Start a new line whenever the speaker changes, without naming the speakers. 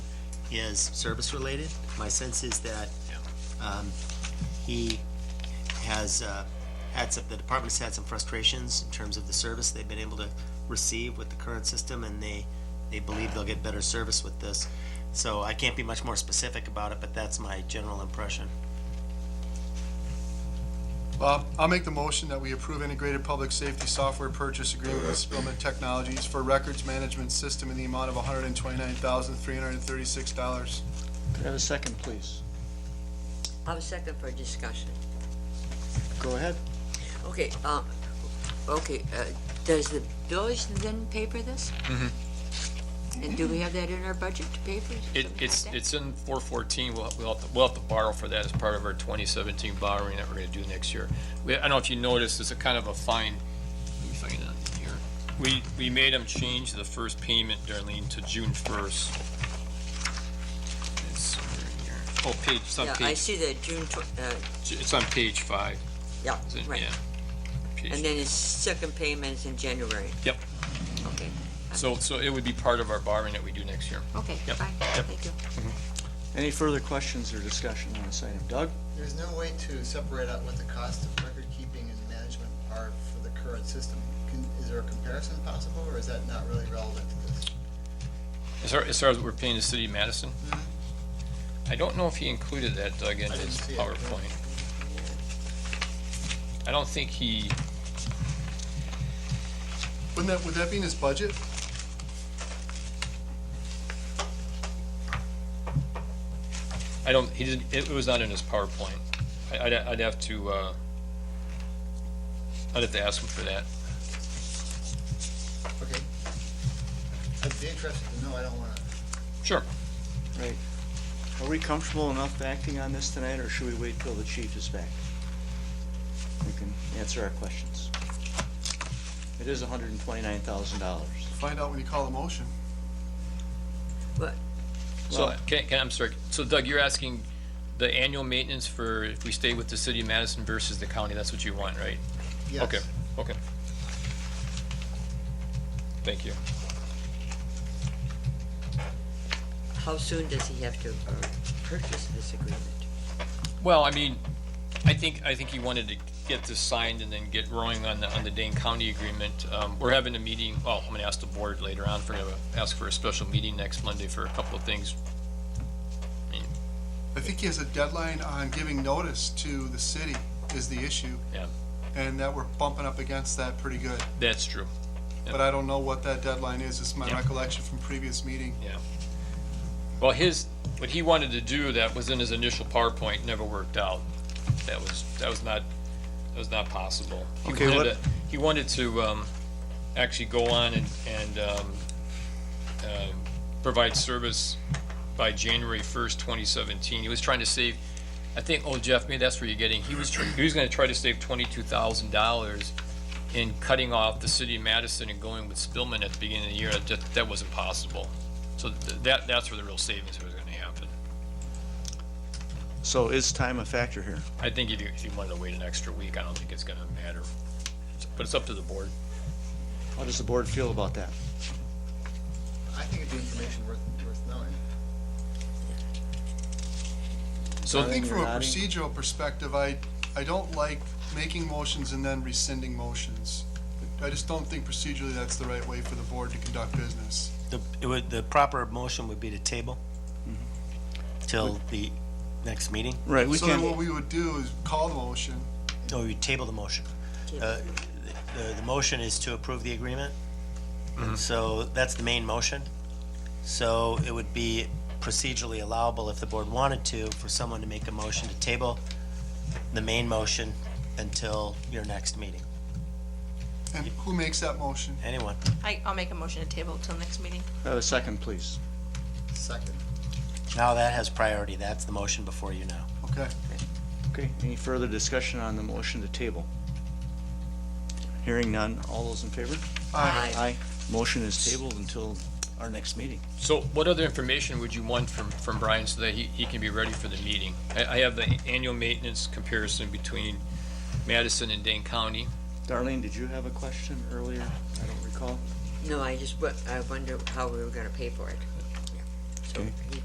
is service-related. My sense is that um, he has uh, had some, the department's had some frustrations in terms of the service they've been able to receive with the current system, and they, they believe they'll get better service with this. So I can't be much more specific about it, but that's my general impression.
Bob, I'll make the motion that we approve integrated public safety software purchase agreement with Spillman Technologies for records management system in the amount of hundred and twenty-nine thousand, three hundred and thirty-six dollars.
Could I have a second, please?
I'll second for discussion.
Go ahead.
Okay, um, okay, uh, does the village then pay for this? And do we have that in our budget to pay for?
It,
something
it's,
like that?
it's in four fourteen, we'll, we'll have to, we'll have to borrow for that as part of our twenty seventeen borrowing that we're gonna do next year. We, I don't know if you noticed, it's a kind of a fine, let me find it here. We, we made them change the first payment, Darlene, to June first. It's somewhere in here. Oh, page, it's on
Yeah, I
page,
see that June tw- uh,
it's on page five,
yeah,
is it?
right.
Yeah. Page-
And then it's second payments in January.
Yep.
Okay,
So, so it would be part of our borrowing that we do next year.
okay,
Yep,
fine,
yep.
thank you.
Any further questions or discussion on this item? Doug?
There's no way to separate out what the cost of record keeping and management are for the current system. Can, is there a comparison possible, or is that not really relevant to this?
As far, as far as what we're paying the city of Madison? I don't know if he included that, Doug, in
I didn't
his
see it.
PowerPoint. I don't think he,
Wouldn't that, would that be in his budget?
I don't, he didn't, it was not in his PowerPoint. I, I'd, I'd have to, uh, I'd have to ask him for that.
Okay. I'd be interested to know, I don't wanna,
Sure.
Right. Are we comfortable enough acting on this tonight, or should we wait till the chief is back? We can answer our questions. It is hundred and twenty-nine thousand dollars.
Find out when you call the motion.
So,
Well-
can, can, I'm sorry, so Doug, you're asking the annual maintenance for if we stay with the city of Madison versus the county, that's what you want, right?
yes.
Okay, okay. Thank you.
How soon does he have to uh, purchase this agreement?
Well, I mean, I think, I think he wanted to get this signed and then get rolling on the, on the Dane County agreement. Um, we're having a meeting, well, I'm gonna ask the board later on, if we're gonna ask for a special meeting next Monday for a couple of things.
I think he has a deadline on giving notice to the city is the issue.
Yeah.
And that we're bumping up against that pretty good,
That's true.
but I don't know what that deadline is. It's my
Yeah.
recollection from previous meeting.
Well, his, what he wanted to do that was in his initial PowerPoint never worked out. That was, that was not, that was not possible. He
Okay,
wanted
what-
to- He wanted to, um, actually go on and, and, um, um, provide service by January first, twenty seventeen. He was trying to save, I think, oh Jeff, maybe that's where you're getting, he was, tr- he was gonna try to save twenty-two thousand dollars in cutting off the city of Madison and going with Spillman at the beginning of the year. That, that wasn't possible. So th- that, that's where the real savings was gonna happen.
So is time a factor here?
I think if you, if you wanted to wait an extra week, I don't think it's gonna matter. But it's up to the board.
How does the board feel about that?
I think it'd be information worth, worth knowing.
I
So,
think from a
Nodding.
procedural perspective, I, I don't like making motions and then rescinding motions. I just don't think procedurally that's the right way for the board to conduct business.
The, it would, the proper motion would be to table till the next meeting,
Right, we
So then what
can,
we would do is call the motion,
or you table the motion. Uh, The, the motion is to approve the agreement, and so that's the main motion. So it would be procedurally allowable if the board wanted to, for someone to make a motion to table the main motion until your next meeting,
and who makes that motion?
anyone.
I, I'll make a motion to table till next meeting.
have a second, please.
Second.
Now that has priority, that's the motion before you now.
Okay.
Okay, any further discussion on the motion to table? Hearing none, all those in favor?
Aye.
Aye. Motion is tabled until our next meeting.
so what other information would you want from, from Brian so that he, he can be ready for the meeting? I, I have the annual maintenance comparison between Madison and Dane County.
Darlene, did you have a question earlier? I don't recall.
No, I just, wa- I wonder how we were gonna pay for it. Yeah. So
Okay.
he